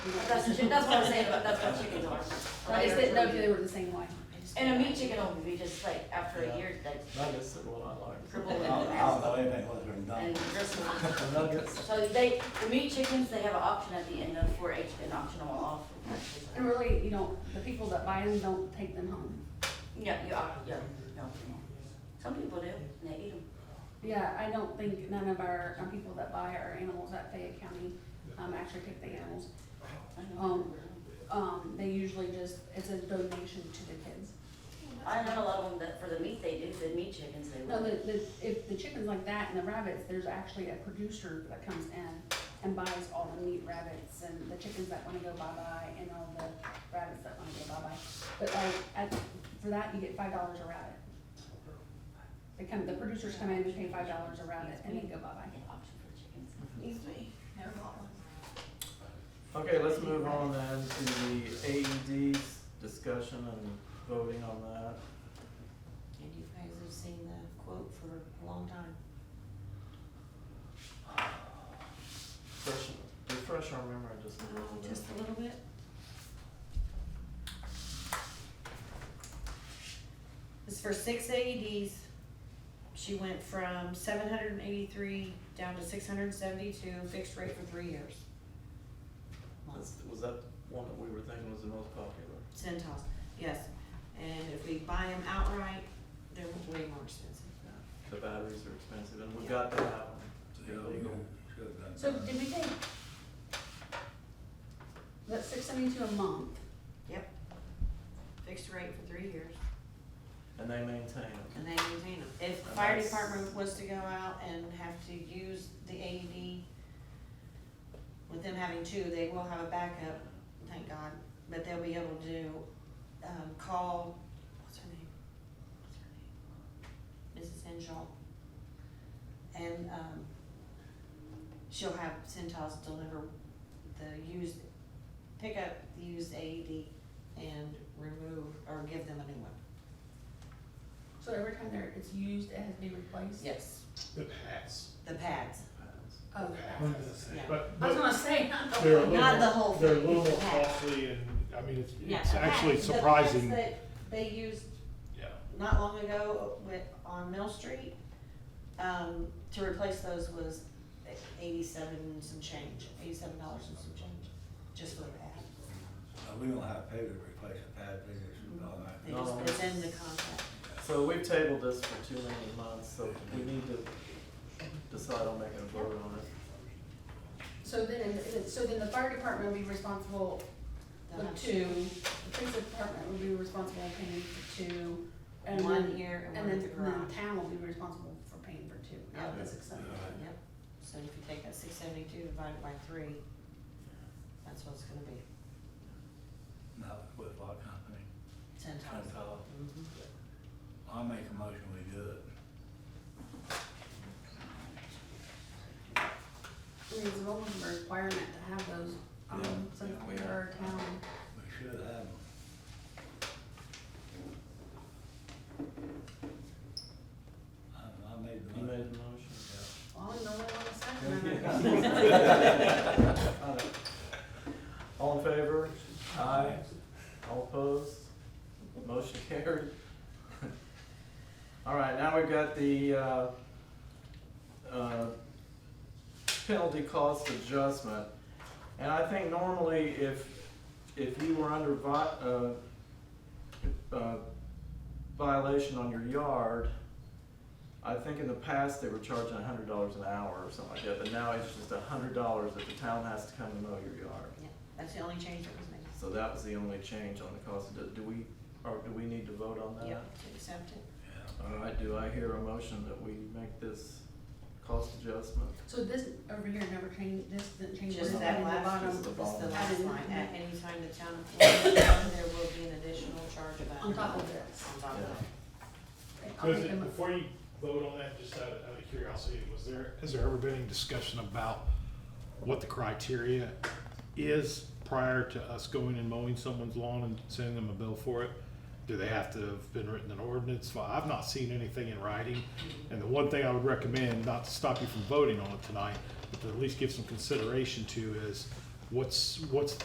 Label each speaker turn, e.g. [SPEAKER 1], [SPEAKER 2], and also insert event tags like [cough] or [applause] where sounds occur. [SPEAKER 1] But That's, what she- that's what I'm saying, but that's what chickens are.
[SPEAKER 2] I just didn't know if they were the same way.
[SPEAKER 1] And a meat chicken would be just like, after a year, like
[SPEAKER 3] Nuggets are what I like.
[SPEAKER 1] crippled
[SPEAKER 4] I don't, I
[SPEAKER 1] and,
[SPEAKER 4] don't know anything what they're done.
[SPEAKER 1] and bristled.
[SPEAKER 3] The nuggets,
[SPEAKER 1] So they, the meat chickens, they have an option at the end of four H, an optional off.
[SPEAKER 2] And really, you don't, the people that buy them don't take them home.
[SPEAKER 1] Yeah, you are, yeah, no. Some people do, and they eat them.
[SPEAKER 2] Yeah, I don't think none of our, um, people that buy our animals at Fayette County, um, actually take the animals. Um, um, they usually just, it's a donation to the kids.
[SPEAKER 1] I know a lot of them that for the meat they do, the meat chickens they
[SPEAKER 2] No,
[SPEAKER 1] would.
[SPEAKER 2] the, the, if the chickens like that and the rabbits, there's actually a producer that comes in and buys all the meat rabbits and the chickens that wanna go bye-bye and all the rabbits that wanna go bye-bye. But like, at, for that, you get five dollars a rabbit. They come, the producers come in and pay five dollars a rabbit and they go
[SPEAKER 1] I
[SPEAKER 2] bye-bye.
[SPEAKER 1] get option for chickens.
[SPEAKER 5] Excuse me, never bought one.
[SPEAKER 3] okay, let's move on then to the AEDs discussion and voting on that.
[SPEAKER 5] And you guys have seen the quote for a long time.
[SPEAKER 3] Refresh, refresh our memory just a little bit.
[SPEAKER 5] Just a little bit. It's for six AEDs. She went from seven hundred and eighty-three down to six hundred and seventy-two, fixed rate for three years.
[SPEAKER 3] Was, was that one that we were thinking was the most popular?
[SPEAKER 5] Centos, yes. And if we buy them outright, they're way more expensive.
[SPEAKER 3] The batteries are expensive and we
[SPEAKER 5] Yeah.
[SPEAKER 3] got to have them to be
[SPEAKER 4] Yeah, we
[SPEAKER 3] legal.
[SPEAKER 4] should have done
[SPEAKER 1] So
[SPEAKER 4] that.
[SPEAKER 1] did we take,
[SPEAKER 2] That's six seventy-two a month.
[SPEAKER 5] Yep. Fixed rate for three years.
[SPEAKER 3] And they maintain them.
[SPEAKER 5] And they maintain them. If the
[SPEAKER 3] And
[SPEAKER 5] fire
[SPEAKER 3] that's-
[SPEAKER 5] department was to go out and have to use the AED, with them having two, they will have a backup, thank God, but they'll be able to, um, call, what's her name? What's her name? Mrs. Henshaw. And, um, she'll have Centos deliver the used, pick up the used AED and remove, or give them a new one.
[SPEAKER 2] So every time there, it's used, it has to be replaced?
[SPEAKER 5] Yes.
[SPEAKER 6] The pads.
[SPEAKER 5] The pads.
[SPEAKER 2] Oh,
[SPEAKER 5] Yeah.
[SPEAKER 6] But,
[SPEAKER 2] I was
[SPEAKER 6] but
[SPEAKER 2] gonna say, not the
[SPEAKER 6] they're a
[SPEAKER 2] one.
[SPEAKER 6] little,
[SPEAKER 5] Not the whole
[SPEAKER 6] more- they're a
[SPEAKER 5] thing,
[SPEAKER 6] little
[SPEAKER 5] the
[SPEAKER 6] more
[SPEAKER 5] pads.
[SPEAKER 6] costly and, I mean, it's,
[SPEAKER 5] Yeah,
[SPEAKER 6] it's
[SPEAKER 5] the pads-
[SPEAKER 6] actually
[SPEAKER 5] the pads
[SPEAKER 6] surprising.
[SPEAKER 5] that They used
[SPEAKER 6] Yeah,
[SPEAKER 5] not long ago with, on Mill Street, um, to replace those was eighty-seven some change, eighty-seven dollars and some change, just for the pad.
[SPEAKER 4] Uh, We don't have pay to replace the pad, we just, all that.
[SPEAKER 5] They just, it's in the contract.
[SPEAKER 3] So we've tabled this for too many months, so we need to decide on making a vote on it.
[SPEAKER 2] So then, so then the fire department would be responsible
[SPEAKER 5] They'll
[SPEAKER 2] With
[SPEAKER 5] have
[SPEAKER 2] two, the police department would be responsible for paying for two, and then.
[SPEAKER 5] One here and
[SPEAKER 2] And
[SPEAKER 5] one
[SPEAKER 2] then,
[SPEAKER 5] at the
[SPEAKER 2] and then
[SPEAKER 5] garage.
[SPEAKER 2] the town will be responsible for paying for two, out of the
[SPEAKER 3] Yeah.
[SPEAKER 2] six hundred.
[SPEAKER 5] Yep, so if you take that six seventy-two divided by three, that's what it's gonna be,
[SPEAKER 4] Not with what company.
[SPEAKER 5] ten
[SPEAKER 4] Kind
[SPEAKER 5] times.
[SPEAKER 4] of tall.
[SPEAKER 5] Mhm.
[SPEAKER 1] Mm-hmm.
[SPEAKER 4] I'll make a motion, we do it.
[SPEAKER 2] I mean, it's a little bit of a requirement to have those, um,
[SPEAKER 4] Yeah,
[SPEAKER 2] so
[SPEAKER 4] yeah, we
[SPEAKER 2] for our town.
[SPEAKER 4] We should have them. I, I made the
[SPEAKER 3] You made
[SPEAKER 4] motion.
[SPEAKER 3] the motion?
[SPEAKER 4] Yeah.
[SPEAKER 2] Well, I don't know what I'm saying.
[SPEAKER 3] I don't- All in favor? Aye. All opposed? Motion carried. All right, now we've got the, uh, uh, penalty cost adjustment. And I think normally if, if you were under vi- uh, uh, violation on your yard, I think in the past, they were charging a hundred dollars an hour or something like that, but now it's just a hundred dollars that the town has to come and mow your yard.
[SPEAKER 5] Yeah, that's the only change that was made.
[SPEAKER 3] So that was the only change on the cost, do, do we, or do we need to vote on that?
[SPEAKER 5] Yep, to accept it.
[SPEAKER 4] Yeah.
[SPEAKER 3] All right, do I hear a motion that we make this cost adjustment?
[SPEAKER 2] [laughs] So this over here never changed, this didn't change.
[SPEAKER 5] Just
[SPEAKER 2] this
[SPEAKER 5] that
[SPEAKER 2] at the
[SPEAKER 5] last,
[SPEAKER 2] bottom
[SPEAKER 3] Just the
[SPEAKER 5] just the
[SPEAKER 3] bottom.
[SPEAKER 5] last
[SPEAKER 2] Added
[SPEAKER 5] line,
[SPEAKER 2] nothing.
[SPEAKER 5] at any time the town employs, there will be an additional charge of that.
[SPEAKER 2] On top of this.
[SPEAKER 5] On top of that.
[SPEAKER 2] Okay, I'll
[SPEAKER 6] Was
[SPEAKER 2] make a
[SPEAKER 6] it-
[SPEAKER 2] mo-
[SPEAKER 6] before you vote on that, just out of, out of curiosity, was there, has there ever been any discussion about what the criteria is prior to us going and mowing someone's lawn and sending them a bill for it? Do they have to have been written in ordinance? Well, I've not seen anything in writing. And the one thing I would recommend, not to stop you from voting on it tonight, but to at least give some consideration to is what's, what's